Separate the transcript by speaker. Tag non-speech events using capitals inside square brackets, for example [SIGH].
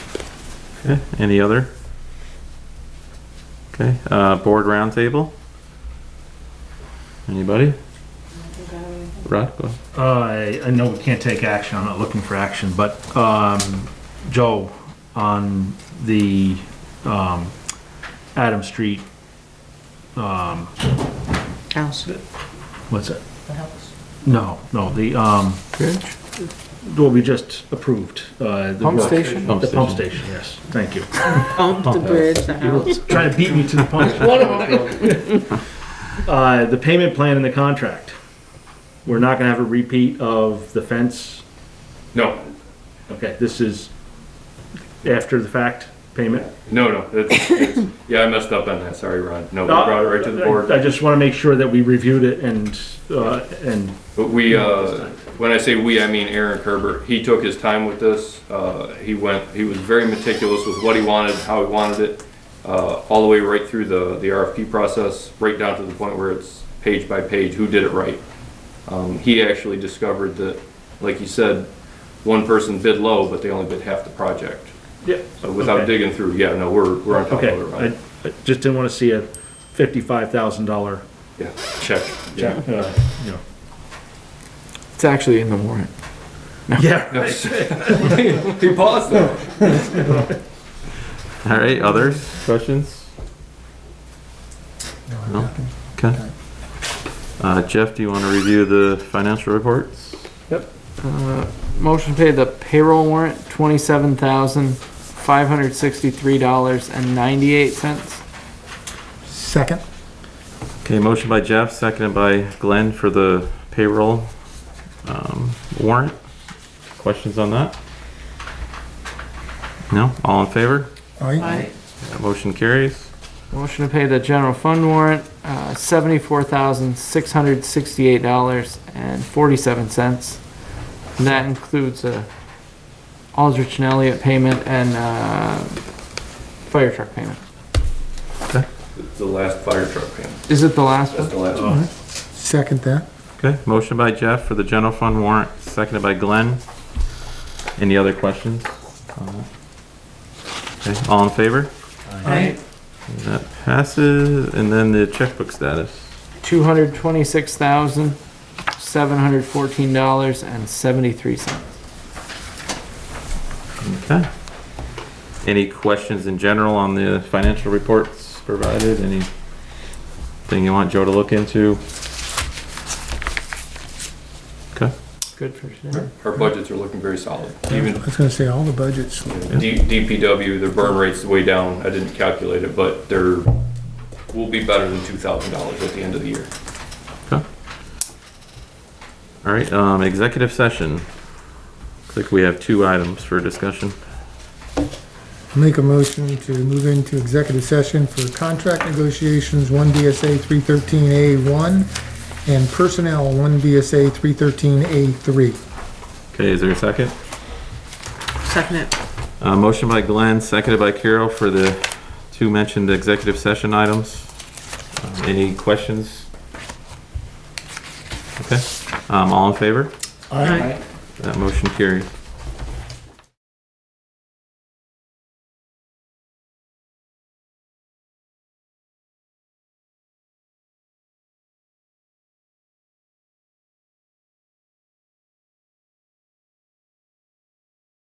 Speaker 1: Okay, any other? Okay, uh, board roundtable? Anybody? Rod, go ahead.
Speaker 2: Uh, I, I know we can't take action, I'm not looking for action, but, um, Joe, on the, um, Adam Street, um,
Speaker 3: House.
Speaker 2: what's it?
Speaker 3: The house.
Speaker 2: No, no, the, um,
Speaker 1: Bridge?
Speaker 2: what we just approved, uh. the
Speaker 4: Pump
Speaker 2: work-
Speaker 4: station?
Speaker 2: The pump station, yes, thank you.
Speaker 3: Pump, the bridge, the house.
Speaker 2: [LAUGHS] Trying to beat me to the
Speaker 4: [LAUGHS]
Speaker 2: punch. [LAUGHS] Uh, the payment plan and the contract. We're not gonna have a repeat of the fence.
Speaker 4: No,
Speaker 2: Okay, this is after the fact payment.
Speaker 4: no, no. It's, it's, yeah, I messed up on that. Sorry, Ron. No, we brought it right to the
Speaker 2: I I
Speaker 4: board.
Speaker 2: just want to make sure that we reviewed it and, uh, and,
Speaker 4: But we, uh, when I say we, I mean Aaron Kerber. He took his time with this. Uh, he went, he was very meticulous with what he wanted, how he wanted it, uh, all the way right through the, the RFP process, right down to the point where it's page by page, who did it right. Um, he actually discovered that, like you said, one person bid low, but they only bid half the project.
Speaker 2: yeah,
Speaker 4: So without
Speaker 2: Okay.
Speaker 4: digging through, yeah, no, we're, we're on top of
Speaker 2: okay.
Speaker 4: it, Ron.
Speaker 2: I I just didn't want to see a fifty-five thousand dollar
Speaker 4: Yeah, check,
Speaker 2: check,
Speaker 4: yeah.
Speaker 2: uh, you know.
Speaker 4: [LAUGHS]
Speaker 5: It's actually in the warrant.
Speaker 2: Yeah,
Speaker 4: No,
Speaker 2: right.
Speaker 4: [LAUGHS] He paused though.
Speaker 1: All right, others, questions? No? Okay. Uh, Jeff, do you want to review the financial reports?
Speaker 5: Uh, Motion to pay the payroll warrant, twenty-seven thousand, five hundred sixty-three dollars and ninety-eight cents.
Speaker 6: Second.
Speaker 1: Okay, motion by Jeff, seconded by Glenn for the payroll, um, warrant. Questions on that? No? All in favor?
Speaker 6: Aye.
Speaker 1: That Motion carries.
Speaker 5: Motion to pay the general fund warrant, uh, seventy-four thousand, six hundred sixty-eight dollars and forty-seven cents. And that includes a Aldrich and Elliott payment and, uh, fire truck payment.
Speaker 4: The last fire truck payment.
Speaker 5: Is it the last
Speaker 4: That's
Speaker 5: one?
Speaker 4: the last one.
Speaker 6: Second that.
Speaker 1: Okay, motion by Jeff for the general fund warrant, seconded by Glenn. Any other questions? on that? Okay, all in favor?
Speaker 5: Aye.
Speaker 1: That passes, and then the checkbook status.
Speaker 5: Two hundred twenty-six thousand, seven hundred fourteen dollars and seventy-three cents.
Speaker 1: Okay. Any questions in general on the financial reports provided? Anything you want Joe to look into? Okay,
Speaker 5: Good for today.
Speaker 4: Our budgets are looking very solid.
Speaker 6: I
Speaker 4: Even
Speaker 6: was gonna say, all the budgets,
Speaker 4: D- DPW, their burn rate's way down. I didn't calculate it, but they're, will be better than two thousand dollars at the end of the year.
Speaker 1: all right, um, executive session. Looks like we have two items for discussion.
Speaker 6: make a motion to move into executive session for contract negotiations, one DSA three thirteen A one, and personnel, one DSA three thirteen A three.
Speaker 1: Okay, is there a second?
Speaker 3: Second it.
Speaker 1: Uh, motion by Glenn, seconded by Carol for the two mentioned executive session items. Um, Any questions? Okay, um, all in favor?
Speaker 3: Aye.
Speaker 1: That motion carries.